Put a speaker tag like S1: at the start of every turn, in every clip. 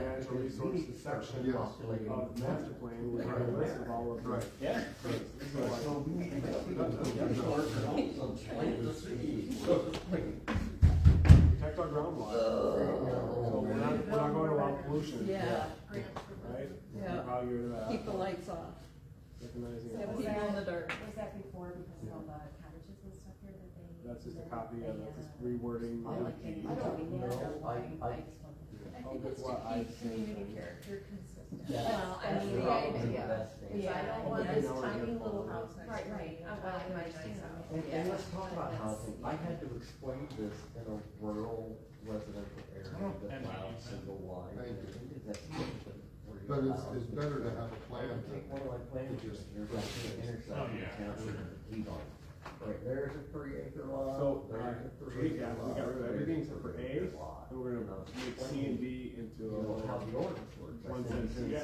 S1: natural resources section
S2: Yes.
S1: of the master plan, we have a list of all of
S2: Right.
S1: the.
S3: Yeah.
S1: So, Protect our
S2: Uh,
S1: groundwater. So we're not, we're not going to allow pollution.
S4: Yeah,
S1: Right?
S4: Yeah.
S1: While you're, uh,
S4: keep the lights off,
S1: recognizing.
S5: So
S4: keep
S5: was
S4: you
S5: that-
S4: in the dark.
S5: Was that before because of all the cottages and stuff here that they?
S1: That's just a
S5: that
S1: copy of
S5: they,
S1: it, just
S5: uh,
S1: rewording.
S5: I like it. I don't know. I- I just want to-
S6: I
S1: Oh,
S6: think
S1: but
S6: it's
S1: what I
S6: to keep
S1: think then-
S6: community character consistent.
S7: Yeah.
S6: Well, I
S7: That's
S6: mean, the
S7: probably the
S6: idea
S7: best thing.
S6: is I don't want
S1: Yeah.
S6: this
S1: Yeah.
S6: tiny little house next
S5: Right,
S6: to me
S5: right.
S6: on top of my nice
S5: Yeah.
S6: house.
S7: And, and let's talk about housing, I had to explain this in a rural residential area that allows single wide.
S2: Thank you.
S7: That's different where
S2: But
S7: you
S2: it's,
S7: allow
S2: it's
S7: the-
S2: better to have a
S7: I
S2: plan
S7: can take one
S2: than,
S7: of my plans just, you're going to intersection,
S8: Oh, yeah,
S7: town,
S8: sure.
S7: and Levon. Right, there's a three acre lot.
S1: So, uh,
S7: there's a three
S1: we
S7: acre
S1: got, we
S7: lot,
S1: got rid of
S7: there's
S1: everything except for
S7: three
S1: A,
S7: acre
S1: and
S7: lot.
S1: we're
S7: You
S1: gonna
S7: know,
S1: make
S7: explain
S1: C and D into
S7: You know, how the
S1: a
S7: ordinance works. I
S1: one
S7: said,
S1: sentence
S7: since-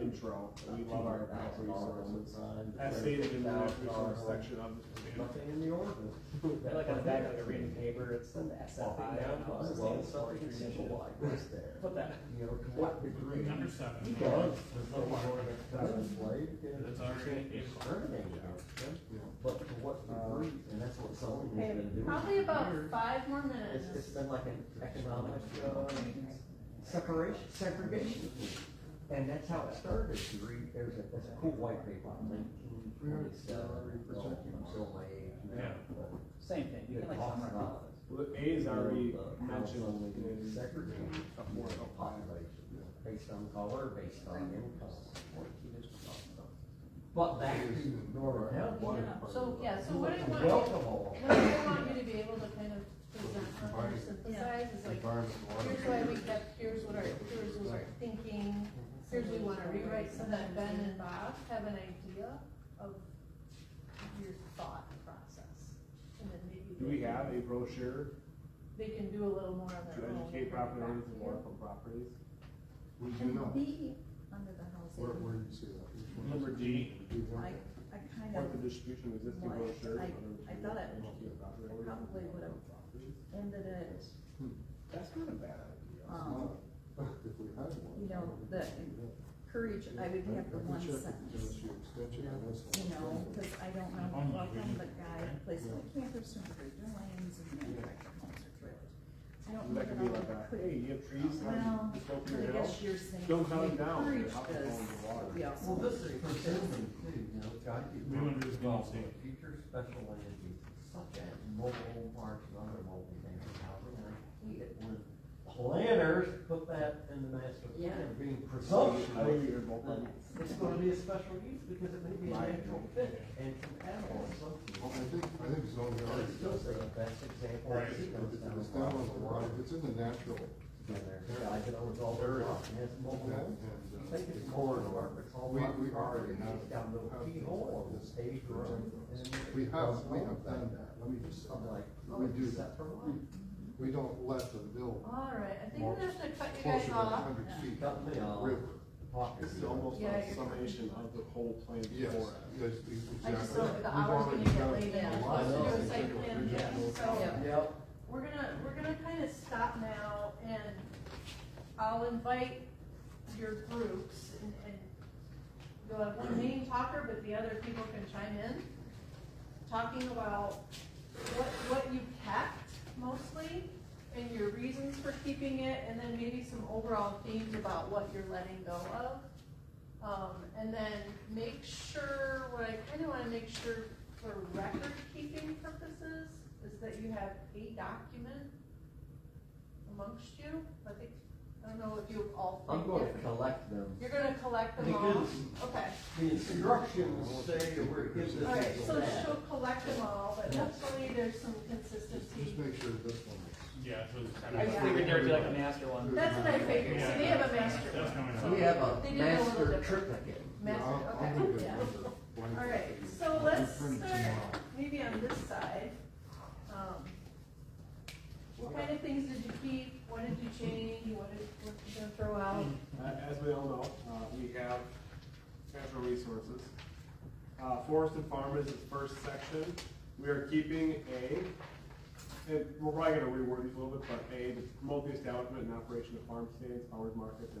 S1: intro, we love our natural resources. As
S7: That's
S1: stated in the natural resource section of this.
S7: Nothing in the ordinance.
S3: I feel like on the back of like a reading paper, it's the SFI. I don't know, it's
S7: Well,
S3: the
S7: something
S3: standard
S7: simple
S3: formulation.
S7: like this there.
S3: Put that.
S7: You know, to what degree?
S8: Number seven.
S7: He does.
S8: That's
S7: There's no
S8: required.
S7: ordinance that is laid in
S8: That's already in.
S7: discriminating against them, But to what degree, and that's what zoning has
S4: Okay,
S7: been doing.
S6: Probably about
S7: Here,
S6: five more
S7: It's, it's
S6: minutes.
S7: been like an economic, uh, separation, segregation. And that's how it started, you read, there's a, there's a cool white paper, nineteen forty-seven, I'm still my age, you know,
S8: Yeah.
S7: but-
S3: Same thing, you
S7: it
S3: can like
S7: talks
S3: summarize.
S7: about
S1: Well, A is already
S7: the
S1: mentioned
S7: household
S1: in
S7: segregation
S1: a form of
S7: population, based on color, based on income. But back to Nora Hempstead.
S6: Yeah, so, yeah, so what I want, what
S7: Welcome all.
S6: I want you to be able to kind of present or synthesize is like,
S2: environmental water.
S6: here's why we kept, here's what our, here's what our thinking, here's what we wanna rewrite, so that Ben and Bob have an idea of your thought process. And then maybe.
S1: Do we have a brochure
S6: They can do a little more
S1: to
S6: on their own.
S1: educate property owners and waterfront properties?
S2: We do
S9: And
S2: know,
S9: B, under the
S2: where, where
S9: housing,
S2: do you see that?
S8: Number D.
S2: Do you
S9: I,
S2: want
S9: I kind
S1: Or the
S9: of
S1: distribution of existing
S9: Well, I-
S1: brochures.
S9: I-
S1: under-
S9: I thought it-
S1: educate property owners and
S9: probably would've-
S1: waterfront properties?
S9: ended it,
S1: That's not a bad idea.
S9: um,
S2: that? If we had one.
S9: you know, the courage, I would have the one sentence. You know, cause I don't know, welcome the guy, place like campers to improve their lanes and manufactured homes or trailers. I don't know
S1: That could be like,
S9: that
S1: a,
S9: I could.
S1: hey, you have trees,
S9: Well,
S1: um, just go through
S9: but
S1: your
S9: I guess
S1: house.
S9: you're saying.
S1: Don't cut 'em down,
S9: encourage
S1: they're hopping
S9: this,
S1: on the water.
S9: but we also-
S7: Well, this is presuming too, you know, God, you.
S8: We wanna do this
S7: Well,
S8: policy.
S7: Future special land use, such as mobile parks and other mobile neighborhood housing, and I hate it when planners put that in the master
S4: Yeah.
S7: plan, being
S1: Oh,
S7: presumptuous.
S1: you're both
S7: that
S1: on-
S7: It's gonna be a special use because it may be a
S1: Right.
S7: natural fit and compatible with something.
S2: Well, I think, I think zoning
S7: But it's still
S2: already,
S7: the best example.
S8: Right.
S7: It's
S2: if
S7: down the
S2: it's down
S7: line.
S2: on the right, if it's in the natural,
S7: Down there, yeah, I can always all the
S2: Area.
S7: rock and has mobile.
S2: that,
S7: homes.
S2: and uh,
S7: Take
S2: the
S7: it
S2: corridor, we, we already
S7: It's
S2: have.
S7: down little
S2: have
S7: keyhole on
S2: things
S7: this
S2: like
S7: page
S2: this.
S7: or
S2: We have, we have done that, let me just, say
S7: I'm like,
S2: that.
S7: oh,
S2: we
S7: it's
S2: do
S7: set
S2: that,
S7: for one.
S2: we don't let the bill
S6: Alright, I think
S2: More
S6: I'm gonna have to cut you
S2: closer
S6: guys
S2: than a
S6: off.
S2: hundred feet
S7: Cut me off.
S2: river.
S7: Pocket.
S1: This is almost
S6: Yeah,
S1: a
S6: you're-
S1: summation of the whole plan
S2: Yes,
S1: before us.
S2: yes,
S6: I
S2: exactly.
S6: just don't, if the
S2: We've
S6: hours gonna
S2: already
S6: get
S2: done
S6: late in,
S2: a
S6: we're
S2: lot
S6: supposed to do a
S2: of things.
S6: site plan,
S2: We've
S6: yeah,
S2: done those.
S6: so.
S7: Yep.
S6: We're gonna, we're gonna kinda stop now and I'll invite your groups and, and you'll have one main talker, but the other people can chime in. Talking about what, what you kept mostly and your reasons for keeping it and then maybe some overall themes about what you're letting go of. Um, and then make sure, what I kinda wanna make sure for record keeping purposes is that you have a document amongst you. I think, I don't know if you all think.
S7: I'm gonna
S6: different.
S7: collect them.
S6: You're gonna collect them all?
S7: Because
S6: Okay,
S7: the instructions say where it gives us.
S6: alright, so
S7: that.
S6: she'll collect them all, but hopefully there's some
S2: Just
S6: consistency.
S2: make sure this one is.
S8: Yeah, so it's kind of.
S3: I just figured there'd be like a master one.
S6: That's what I figured, so they have a master
S8: That's coming
S6: one.
S8: up.
S7: We have a
S6: They did a little
S7: master
S6: different.
S7: triplicate.
S6: Master,
S2: I'll- I'll
S6: okay.
S2: do the
S6: Yeah.
S2: river one.
S6: Alright, so let's
S2: Print it
S6: start
S2: tomorrow.
S6: maybe on this side. Um, What kind of things did you keep? What did you change? What did, what you gonna throw out?
S1: Uh, as we all know, uh, we have natural resources. Uh, forest and farm is the first section. We are keeping a, and we're probably gonna reword these a little bit, but A, to promote the establishment and operation of farm stands, farmers markets, and